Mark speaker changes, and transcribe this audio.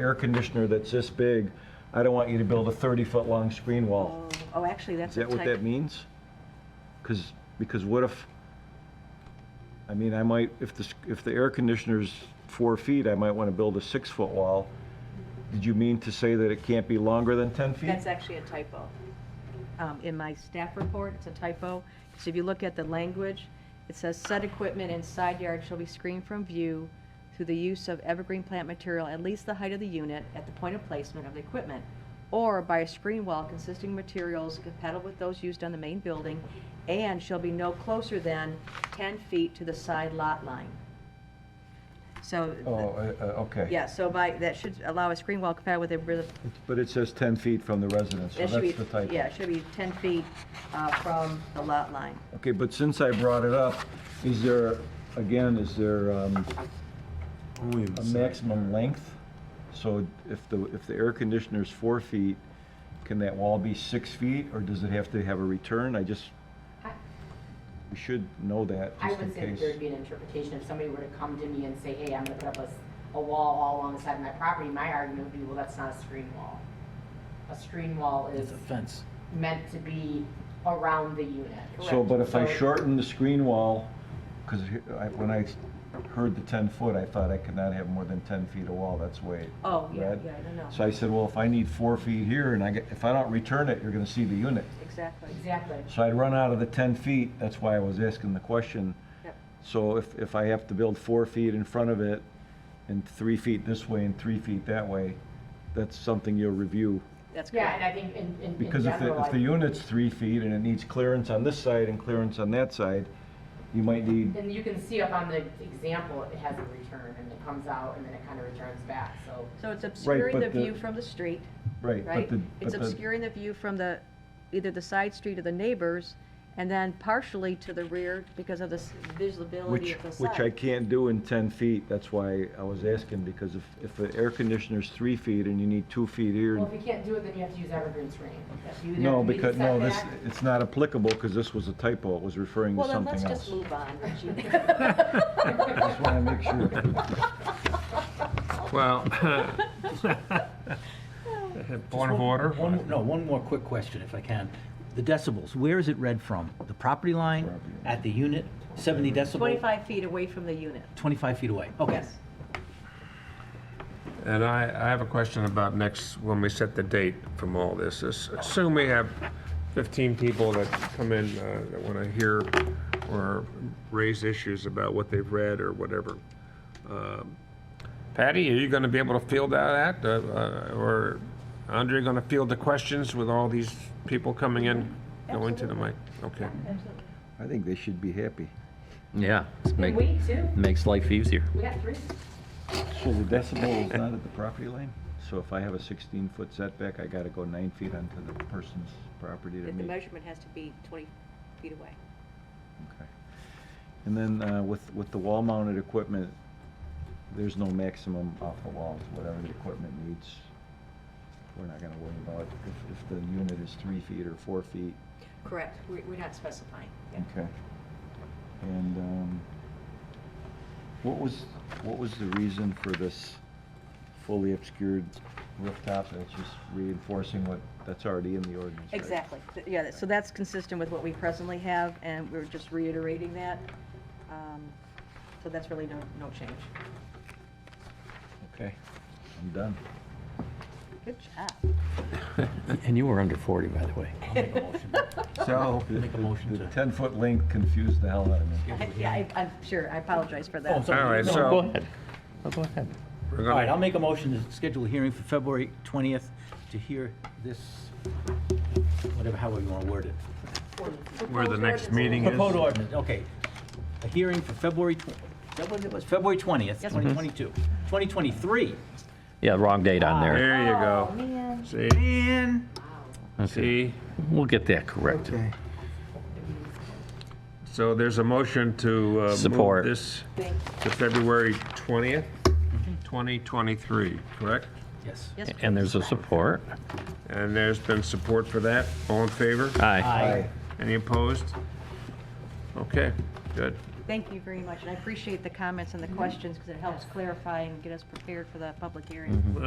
Speaker 1: air conditioner that's this big, I don't want you to build a 30-foot long screen wall.
Speaker 2: Oh, oh, actually, that's
Speaker 1: Is
Speaker 2: a
Speaker 1: that what that
Speaker 2: type,
Speaker 1: means? Because, because what if, I mean, I might, if the, s- if the air conditioner's four feet, I might want to build a six-foot wall. Did you mean to say that it can't be longer than 10 feet?
Speaker 2: that's actually a typo. Um, in my staff report, it's a typo. So if you look at the language, it says said equipment in side yard shall be screened from view through the use of evergreen plant material at least the height of the unit at the point of placement of the equipment, or by a screen wall consisting of materials compatible with those used on the main building, and shall be no closer than ten feet to the side lot line. So.
Speaker 1: Oh, uh, uh, okay.
Speaker 2: Yeah, so by, that should allow a screen wall compatible with a, real-
Speaker 1: But it says 10 feet from the residence, so
Speaker 2: that should
Speaker 1: that's the
Speaker 2: be,
Speaker 1: typo.
Speaker 2: yeah, it should be 10 feet uh, from the lot line.
Speaker 1: Okay, but since I brought it up, is there, again, is there um,
Speaker 3: Only
Speaker 1: a
Speaker 3: the
Speaker 1: maximum length? So if the, if the air conditioner's four feet, can that wall be six feet, or does it have to have a return? I just,
Speaker 4: I-
Speaker 1: we should know that,
Speaker 4: I
Speaker 1: just in
Speaker 4: would say that
Speaker 1: case.
Speaker 4: there'd be an interpretation, if somebody were to come to me and say, hey, I'm gonna put up a, s- a wall all along the side of my property, my argument would be, well, that's not a screen wall. A screen wall is
Speaker 5: It's a fence.
Speaker 4: meant to be around the unit.
Speaker 1: So, but if I
Speaker 4: So-
Speaker 1: shorten the screen wall, because when I heard the 10-foot, I thought I could not have more than 10 feet of wall, that's way.
Speaker 2: Oh, yeah,
Speaker 1: read.
Speaker 2: yeah, I don't know.
Speaker 1: So I said, well, if I need four feet here, and I get, if I don't return it, you're gonna see the unit.
Speaker 2: Exactly.
Speaker 4: Exactly.
Speaker 1: So I'd run out of the 10 feet, that's why I was asking the question.
Speaker 2: Yep.
Speaker 1: So if, if I have to build four feet in front of it, and three feet this way and three feet that way, that's something you'll review.
Speaker 2: That's
Speaker 4: Yeah, and
Speaker 2: correct.
Speaker 4: I think in, in- in
Speaker 1: Because if the,
Speaker 4: general,
Speaker 1: if the
Speaker 4: I-
Speaker 1: unit's three feet and it needs clearance on this side and clearance on that side, you might need,
Speaker 4: and you can see up on the example, it has a return, and it comes out, and then it kind of returns back, so.
Speaker 2: So it's obscuring
Speaker 1: but
Speaker 2: the
Speaker 1: the-
Speaker 2: view from the street,
Speaker 1: right, but
Speaker 2: right?
Speaker 1: the, but
Speaker 2: It's
Speaker 1: the,
Speaker 2: obscuring the view from the, either the side street or the neighbors, and then partially to the rear because of the s- visibility
Speaker 1: which,
Speaker 2: of the side.
Speaker 1: which I can't do in 10 feet, that's why I was asking, because if, if the air conditioner's three feet and you need two feet here
Speaker 4: Well,
Speaker 1: and
Speaker 4: if you can't do it, then you have to use evergreen screening. If you-
Speaker 1: No,
Speaker 4: there'd be
Speaker 1: because, no, this,
Speaker 4: setback.
Speaker 1: it's not applicable, because this was a typo, it was referring to
Speaker 2: Well, then let's
Speaker 1: something
Speaker 2: just
Speaker 1: else.
Speaker 2: move on, Richie.
Speaker 1: I Just wanna make sure.
Speaker 3: Well, point of order.
Speaker 5: One, no, one more quick question if I can. The decibels, where is it read from? The property line,
Speaker 1: Property line.
Speaker 5: at the unit, 70 decibel?
Speaker 2: 25 feet away from the unit,
Speaker 5: 25 feet away, okay.
Speaker 2: yes.
Speaker 3: And I, I have a question about next, when we set the date from all this. This- Assume we have 15 people that come in uh, that want to hear or raise issues about what they've read or whatever. Um, Patty, are you going to be able to field that, uh, uh, or Andre going to field the questions with all these people coming in, going to the mic? Okay.
Speaker 1: I think they should be happy.
Speaker 6: Yeah, it's make,
Speaker 4: We too,
Speaker 6: makes life easier.
Speaker 4: we got three.
Speaker 1: So the decibel is not at the property line? So if I have a sixteen-foot setback, I gotta go nine feet onto the person's property to
Speaker 2: If the
Speaker 1: meet?
Speaker 2: measurement has to be 20 feet away.
Speaker 1: Okay. And then, uh, with, with the wall-mounted equipment, there's no maximum off the wall, It's whatever the equipment needs. We're not gonna worry about if, if the unit is three feet or four feet.
Speaker 2: Correct, We- we're not specifying. yeah.
Speaker 1: Okay. And um, what was, what was the reason for this fully obscured rooftop? It's just reinforcing what, that's already in the ordinance, right?
Speaker 2: Exactly, Th- yeah, that- so that's consistent with what we presently have, and we're just reiterating that. Um, So that's really no, no change.
Speaker 1: Okay, I'm done.
Speaker 2: Good job.
Speaker 6: And you were under 40, by the way.
Speaker 5: I'll make a motion.
Speaker 1: So.
Speaker 5: Make a motion
Speaker 1: The
Speaker 5: to-
Speaker 1: ten-foot length confused the hell out of me.
Speaker 2: Yeah, I- I'm sure, I apologize for
Speaker 5: Oh,
Speaker 2: that.
Speaker 5: sorry.
Speaker 3: All right,
Speaker 5: No,
Speaker 3: so-
Speaker 6: Go ahead. Oh, Go ahead.
Speaker 3: We're
Speaker 5: All right,
Speaker 3: gonna-
Speaker 5: I'll make a motion to schedule a hearing for February 20th to hear this, whatever, however you want to word it.
Speaker 3: Where the next meeting is.
Speaker 5: Proposed ordinance, okay. A hearing for February, tw- is that what it was, February 20th, 2022. 2023.
Speaker 6: Yeah, wrong date on there.
Speaker 3: There you
Speaker 4: Oh,
Speaker 3: go.
Speaker 4: man.
Speaker 3: See,
Speaker 5: And
Speaker 6: Ah,
Speaker 3: see?
Speaker 6: We'll get that corrected.
Speaker 3: So there's a motion to uh,
Speaker 6: Support.
Speaker 3: move this
Speaker 4: Thank you.
Speaker 3: to February 20th, 2023, correct?
Speaker 5: Yes.
Speaker 2: Yes,
Speaker 6: And there's a support.
Speaker 3: And there's been support for that. All in favor?
Speaker 6: Aye.
Speaker 5: Aye.
Speaker 3: Any opposed? Okay, good.
Speaker 2: thank you very much, and I appreciate the comments and the questions, because it helps clarify and get us prepared for the public hearing.